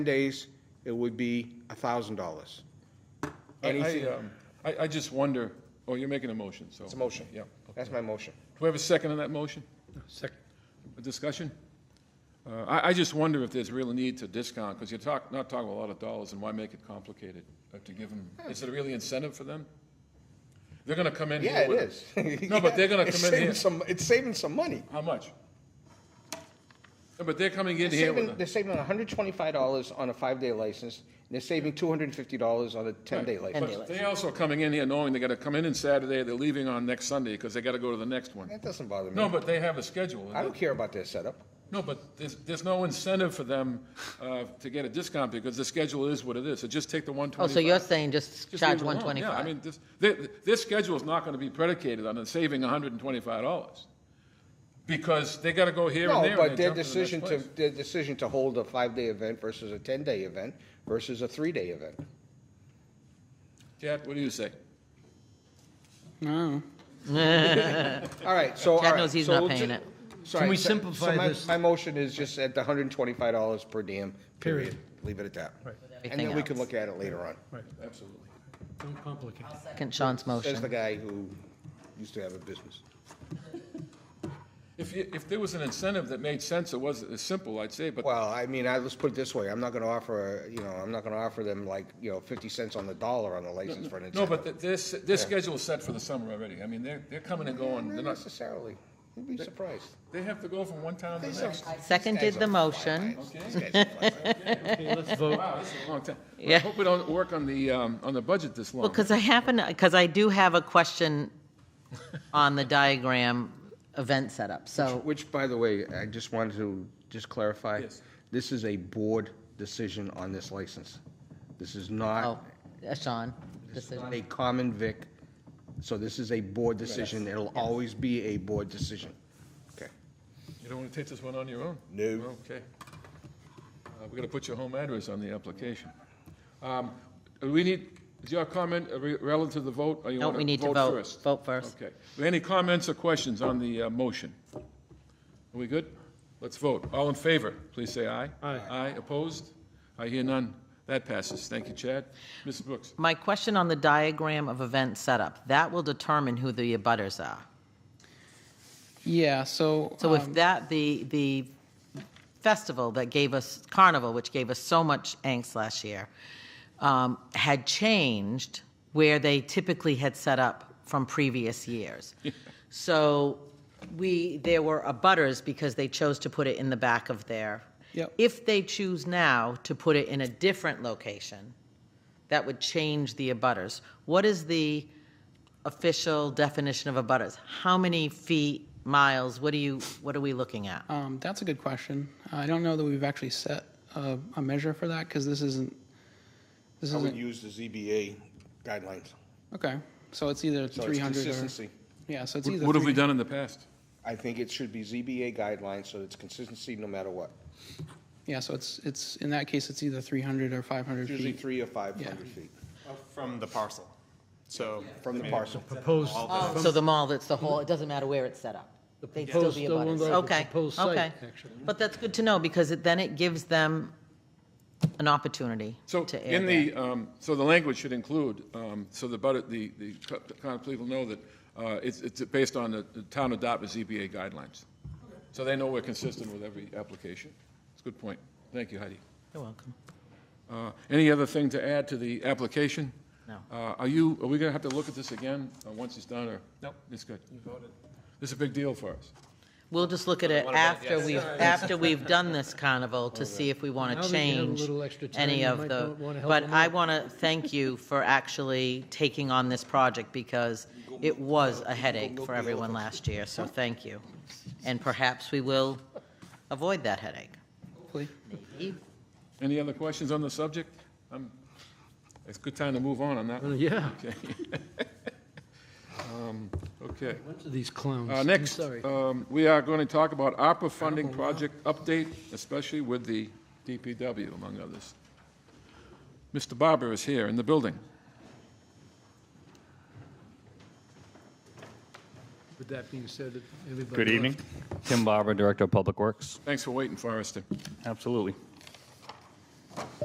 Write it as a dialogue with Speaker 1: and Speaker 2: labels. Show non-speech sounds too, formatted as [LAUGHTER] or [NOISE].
Speaker 1: days, it would be a thousand dollars.
Speaker 2: I- I,
Speaker 1: Anything-
Speaker 2: um, I, I just wonder, oh, you're making a motion, so. It's
Speaker 1: a motion.
Speaker 2: Yeah.
Speaker 1: That's my motion.
Speaker 2: Do we have a second on that motion?
Speaker 3: Second.
Speaker 2: A discussion? Uh, I, I just wonder if there's real need to discount, because you're talk, not talking a lot of dollars, and why make it complicated? uh, To give them, is it really incentive for them? They're gonna come in here
Speaker 1: Yeah, it
Speaker 2: with-
Speaker 1: is. [LAUGHS]
Speaker 2: No, but they're gonna
Speaker 1: It's
Speaker 2: come in
Speaker 1: saving
Speaker 2: here-
Speaker 1: some- It's saving some money.
Speaker 2: How much? No, But they're coming in
Speaker 1: They're
Speaker 2: here
Speaker 1: saving,
Speaker 2: with,
Speaker 1: they're
Speaker 2: a-
Speaker 1: saving hundred twenty-five dollars on a five-day license, and they're saving two hundred and fifty dollars on a ten-day license.
Speaker 2: but they also coming in here knowing they gotta come in on Saturday, they're leaving on next Sunday, because they gotta go to the next one.
Speaker 1: That doesn't bother
Speaker 2: No,
Speaker 1: me.
Speaker 2: but they have a schedule.
Speaker 1: I don't care about their setup.
Speaker 2: No, but there's, there's no incentive for them uh, to get a discount because the schedule is what it is. So just take the
Speaker 3: Oh,
Speaker 2: 125.
Speaker 3: so you're saying just
Speaker 2: Just
Speaker 3: charge
Speaker 2: leave it alone.
Speaker 3: one
Speaker 2: Yeah, I
Speaker 3: twenty-five?
Speaker 2: mean, this, thi- this schedule is not going to be predicated on it saving $125 because they got to go here and there.
Speaker 1: No,
Speaker 2: and
Speaker 1: but
Speaker 2: they
Speaker 1: their
Speaker 2: jump the next
Speaker 1: decision to,
Speaker 2: place.
Speaker 1: their decision to hold a five-day event versus a ten-day event versus a three-day event.
Speaker 2: Chad, what do you say?
Speaker 1: All right, so.
Speaker 3: Chad
Speaker 1: all right,
Speaker 3: knows he's
Speaker 1: so
Speaker 3: not
Speaker 1: we'll
Speaker 3: paying
Speaker 1: ju-
Speaker 3: it.
Speaker 1: Sorry,
Speaker 4: we
Speaker 1: so- so
Speaker 4: simplify
Speaker 1: my-
Speaker 4: this?
Speaker 1: My motion is just at the hundred and twenty-five dollars per diem, period.
Speaker 4: Period.
Speaker 1: Leave it at that. And
Speaker 3: Everything
Speaker 1: then we can
Speaker 3: else.
Speaker 1: look at it later on.
Speaker 2: Absolutely.
Speaker 4: Don't complicate.
Speaker 3: Second Sean's
Speaker 1: Says the
Speaker 3: motion.
Speaker 1: guy who used to have a business.
Speaker 2: If, you- if there was an incentive that made sense, it wasn't as simple, I'd say, but
Speaker 1: Well, I mean, I, let's put it this way, I'm not gonna offer, you know, I'm not gonna offer them like, you know, fifty cents on the dollar on the license for an
Speaker 2: no,
Speaker 1: incentive.
Speaker 2: but th- this, this schedule is set for the summer already. I mean, they're, they're coming and going. They're
Speaker 1: Not
Speaker 2: not,
Speaker 1: necessarily, you'd be surprised.
Speaker 2: they have to go from one town to the next.
Speaker 3: Second did the motion.
Speaker 4: [LAUGHS] Okay, let's vote.
Speaker 2: Wow, this is a long time. I
Speaker 3: Yeah.
Speaker 2: hope we don't work on the, um, on the budget this long.
Speaker 3: Well, because I happen, because I do have a question on the diagram event setup, so,
Speaker 1: Uh, Which, by the way, I just wanted to just clarify.
Speaker 2: Yes.
Speaker 1: This is a board decision on this license. This is
Speaker 3: oh,
Speaker 1: not,
Speaker 3: uh, Sean.
Speaker 1: this is
Speaker 3: decision.
Speaker 1: not a common vic, so this is a board decision, it'll always be a board decision. Okay.
Speaker 2: You don't want to take this one on your own?
Speaker 1: No.
Speaker 2: Okay. Uh, We're going to put your home address on the application. Um, do We need, is your comment uh, re- relative to the vote? or you
Speaker 3: No,
Speaker 2: wanna
Speaker 3: we need to vote.
Speaker 2: first?
Speaker 3: Vote first.
Speaker 2: Okay. Any comments or questions on the uh, motion? Are we good? Let's vote. All in favor, please say aye.
Speaker 4: Aye.
Speaker 2: Aye, opposed? I hear none. That passes. Thank you, Chad. Mrs. Brooks?
Speaker 3: My question on the diagram of event setup, that will determine who the abutters are.
Speaker 5: Yeah, so,
Speaker 3: So
Speaker 5: um,
Speaker 3: if that, the, the festival that gave us, Carnival, which gave us so much angst last year, um, had changed where they typically had set up from previous years. So we, there were abutters because they chose to put it in the back of their.
Speaker 5: Yep.
Speaker 3: If they choose now to put it in a different location, that would change the abutters. What is the official definition of abutters? How many feet, miles, what are you, what are we looking at?
Speaker 5: um, that's a good question. I don't know that we've actually set a, a measure for that because this isn't. This
Speaker 1: I
Speaker 5: isn't
Speaker 1: would use the ZBA guidelines.
Speaker 5: okay. So it's either
Speaker 1: So it's
Speaker 5: 300 or
Speaker 1: consistency.
Speaker 5: yeah. So it's either
Speaker 2: What have we
Speaker 5: 300
Speaker 2: done in the past?
Speaker 1: I think it should be ZBA guidelines, so it's consistency no matter what.
Speaker 5: Yeah, so it's it's in that case it's either 300 or 500
Speaker 1: Usually
Speaker 5: feet.
Speaker 1: three or five hundred
Speaker 5: Yeah.
Speaker 1: feet
Speaker 6: From the parcel, so.
Speaker 1: from the parcel.
Speaker 4: Proposed,
Speaker 3: So the mall, that's the whole, it doesn't matter where it's set up. They'd still
Speaker 4: proposed-
Speaker 3: be
Speaker 4: the one
Speaker 3: abutters.
Speaker 4: that- the
Speaker 3: Okay,
Speaker 4: proposed site,
Speaker 3: okay.
Speaker 4: actually.
Speaker 3: But that's good to know because it, then it gives them an opportunity
Speaker 2: So
Speaker 3: to air
Speaker 2: in
Speaker 3: that.
Speaker 2: the, um, so the language should include, um, so the, but the, the co- common people know that uh, it's, it's based on the the town adopted ZBA guidelines. So they know we're consistent with every application. It's a good point. Thank you, Heidi.
Speaker 3: You're welcome.
Speaker 2: Uh, Any other thing to add to the application?
Speaker 3: No.
Speaker 2: Uh, Are you, are we going to have to look at this again uh, once it's done, or? No. It's good. You voted. This is a big deal for us.
Speaker 3: We'll just look at it after we've,
Speaker 4: [LAUGHS]
Speaker 3: after we've done this carnival to see if we want
Speaker 4: Now
Speaker 3: to
Speaker 4: that you have a
Speaker 3: change
Speaker 4: little extra time,
Speaker 3: any
Speaker 4: you
Speaker 3: of
Speaker 4: might
Speaker 3: the.
Speaker 4: want- wanna help
Speaker 3: But
Speaker 4: them
Speaker 3: I
Speaker 4: out.
Speaker 3: want to thank you for actually taking on this project because it was a headache for everyone last year, so thank you. And perhaps we will avoid that headache.
Speaker 5: Hopefully.
Speaker 2: Any other questions on the subject? Um, It's a good time to move on on that one.
Speaker 4: yeah.
Speaker 2: Okay.
Speaker 4: Bunch of These clowns.
Speaker 2: Uh,
Speaker 4: I'm
Speaker 2: Next,
Speaker 4: Sorry.
Speaker 2: um, we are going to talk about ARPA funding project update, especially with the DPW, among others. Mr. Barber is here in the building.
Speaker 4: With that being said, everybody.
Speaker 7: Good evening.
Speaker 4: left.
Speaker 7: Tim Barber, Director of Public Works.
Speaker 2: Thanks for waiting, Forrester.
Speaker 7: Absolutely.